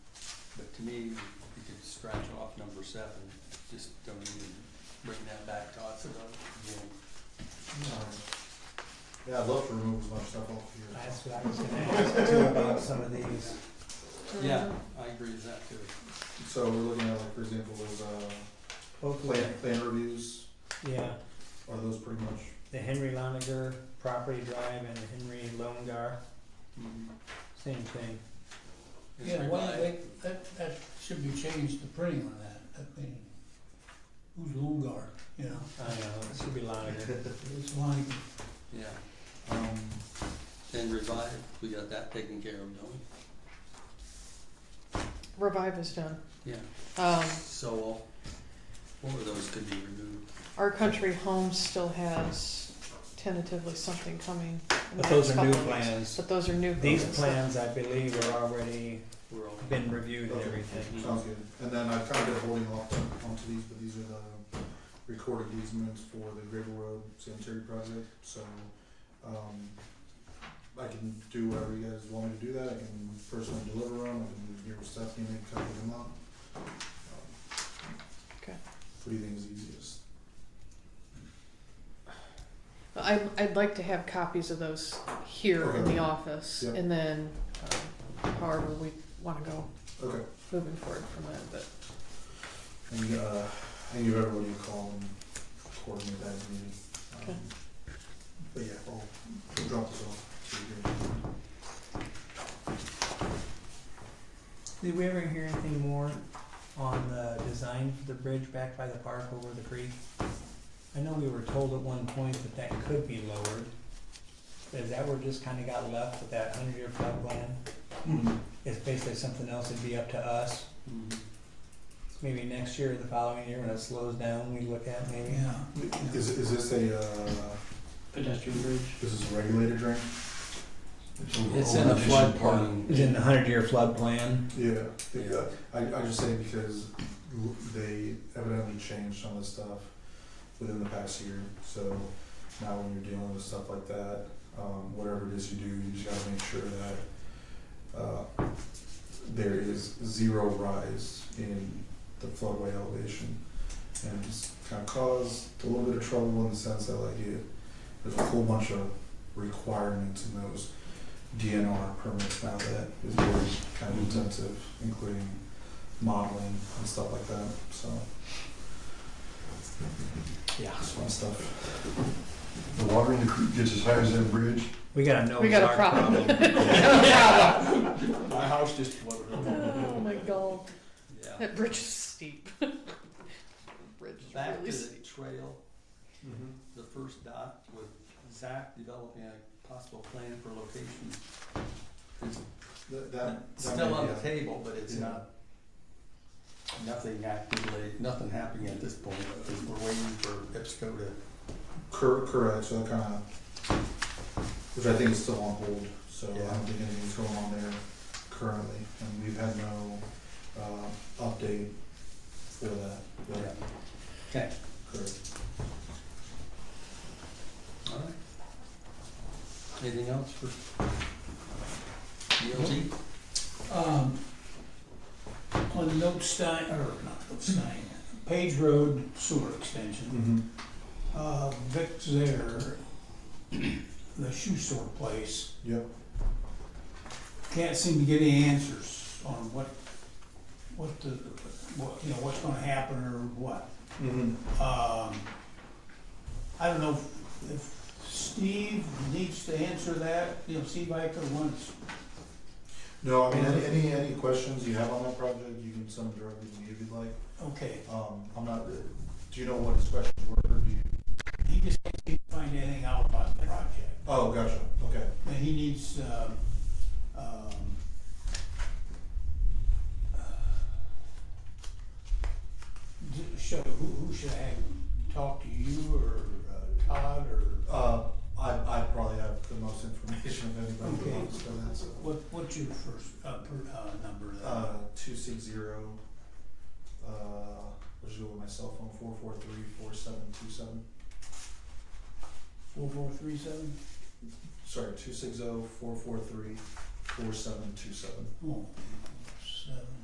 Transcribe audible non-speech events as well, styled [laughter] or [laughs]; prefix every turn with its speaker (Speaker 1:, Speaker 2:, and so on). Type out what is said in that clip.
Speaker 1: to me, you could scratch off number seven, just don't even bring that back to us at all again.
Speaker 2: Yeah, I'd love to remove as much stuff off here.
Speaker 3: That's what I was gonna ask too about some of these.
Speaker 1: Yeah, I agree with that too.
Speaker 2: So we're looking at like, for example, those, uh,
Speaker 3: Oakland,
Speaker 2: plan, plan reviews,
Speaker 3: yeah,
Speaker 2: are those pretty much,
Speaker 3: the Henry Loniger property drive and the Henry Longar,
Speaker 1: Mhm.
Speaker 3: same thing.
Speaker 1: It's
Speaker 4: Yeah, why
Speaker 1: revised.
Speaker 4: they, that, that should be changed, the printing on that, I mean, who's Longar, you know,
Speaker 3: I don't know, it should be Loniger.
Speaker 4: it's like,
Speaker 1: Yeah,
Speaker 2: um,
Speaker 1: and revive, we got that taken care of, don't
Speaker 5: Revive is done.
Speaker 1: we? Yeah,
Speaker 5: Um,
Speaker 1: so, four of those could be removed.
Speaker 5: our country home still has tentatively something coming. in the
Speaker 3: But those
Speaker 5: next
Speaker 3: are new
Speaker 5: couple of weeks.
Speaker 3: plans.
Speaker 5: But those are new.
Speaker 3: These
Speaker 5: plans.
Speaker 3: plans, I believe, are already
Speaker 1: We're all,
Speaker 3: been reviewed and
Speaker 2: Okay.
Speaker 3: everything.
Speaker 2: sounds good. And then I've kind of been holding off on- onto these, but these are the recorded easements for the Gravel Road sanitary project, so, um, I can do whatever you guys want me to do that, I can personally deliver them, I can give Stephanie and cut them up.
Speaker 5: Okay.
Speaker 2: What do you think is easiest?
Speaker 5: I, I'd like to have copies of those here in
Speaker 2: Okay.
Speaker 5: the office,
Speaker 2: Yep.
Speaker 5: and then um, however we want to go
Speaker 2: Okay.
Speaker 5: moving forward from that. But
Speaker 2: And uh, I give everyone a call and coordinate that meeting. Um,
Speaker 5: Okay.
Speaker 2: But yeah, I'll drop this off to you.
Speaker 3: Did we ever hear anything more on the design for the bridge back by the park over the creek? I know we were told at one point that that could be lowered. Is that where it just kinda got left with that hundred year flood plan? It's basically something else that'd be up to us.
Speaker 1: Mhm.
Speaker 3: Maybe next year or the following year when it slows down, we look at maybe.
Speaker 4: yeah.
Speaker 2: Is, is this a, uh,
Speaker 4: Pedestrian bridge?
Speaker 2: this is a regulated drain?
Speaker 1: It's in the flood plain. [laughs]
Speaker 3: It's in the hundred year flood plan.
Speaker 2: Yeah, the, uh, I, I just say because l- they evidently changed some of the stuff within the past year. So now when you're dealing with stuff like that, um, whatever it is you do, you just gotta make sure that, uh, there is zero rise in the floodway elevation. And just kind of caused a little bit of trouble in the sense that like it, there's a whole bunch of requirements in those DNR permits now that is very kind of intensive, including modeling and stuff like that, so. Yeah. It's fun stuff.
Speaker 6: The water in the creek gets as high as that
Speaker 2: [laughs]
Speaker 6: bridge.
Speaker 3: We gotta know.
Speaker 5: We
Speaker 3: it's
Speaker 5: got a
Speaker 3: our
Speaker 5: problem.
Speaker 2: Mm-hmm. My house just flooded
Speaker 5: oh my god,
Speaker 1: Yeah.
Speaker 5: that bridge is steep. [laughs] bridge is
Speaker 1: Back
Speaker 5: really
Speaker 1: to the
Speaker 5: steep.
Speaker 1: trail, the first dot with Zach developing a possible plan for location. It's
Speaker 2: That, that. that
Speaker 1: still
Speaker 2: may
Speaker 1: on
Speaker 2: be
Speaker 1: the
Speaker 2: a-
Speaker 1: table, but it's
Speaker 2: Yeah.
Speaker 1: not, nothing actively, nothing happening at this point, because we're waiting for IPSCO to.
Speaker 2: Cor- correct, so that kind of, which I think is still on hold, so I
Speaker 1: Yeah.
Speaker 2: don't think anything's going on there currently. And we've had no, uh, update for that, but
Speaker 1: Okay.
Speaker 2: correct.
Speaker 1: All right. Anything else for DLT?
Speaker 4: Um, on Notestein, or not Notestein, Page Road Sewer Extension,
Speaker 2: Mm-hmm.
Speaker 4: uh, Vic's there, the shoe store place,
Speaker 2: Yep,
Speaker 4: can't seem to get any answers on what, what the, what, you know, what's gonna happen or what.
Speaker 2: mm-hmm.
Speaker 4: Um, I don't know if- if Steve needs to answer that, you know, Steve Iker wants,
Speaker 2: No, I mean, any, any, any questions you have on that project, you can send them directly to me if you'd like.
Speaker 4: okay,
Speaker 2: Um, I'm not, do you know what his questions were, or do you?
Speaker 4: he just can't seem to find anything out about the project.
Speaker 2: Oh, gotcha, okay.
Speaker 4: And he needs, um, um, uh, d- should, who, who should I have talk to you or uh, Todd or
Speaker 2: Uh, I, I probably have the most information of anybody who
Speaker 4: Okay.
Speaker 2: wants for that, so.
Speaker 4: what, what's your first, uh, per, uh, number there?
Speaker 2: Uh, two six zero, uh, let's go with my cell phone, four four three four seven two seven.
Speaker 4: Four four three seven?
Speaker 2: Sorry, two six oh four four three four seven two seven.
Speaker 4: Oh, seven.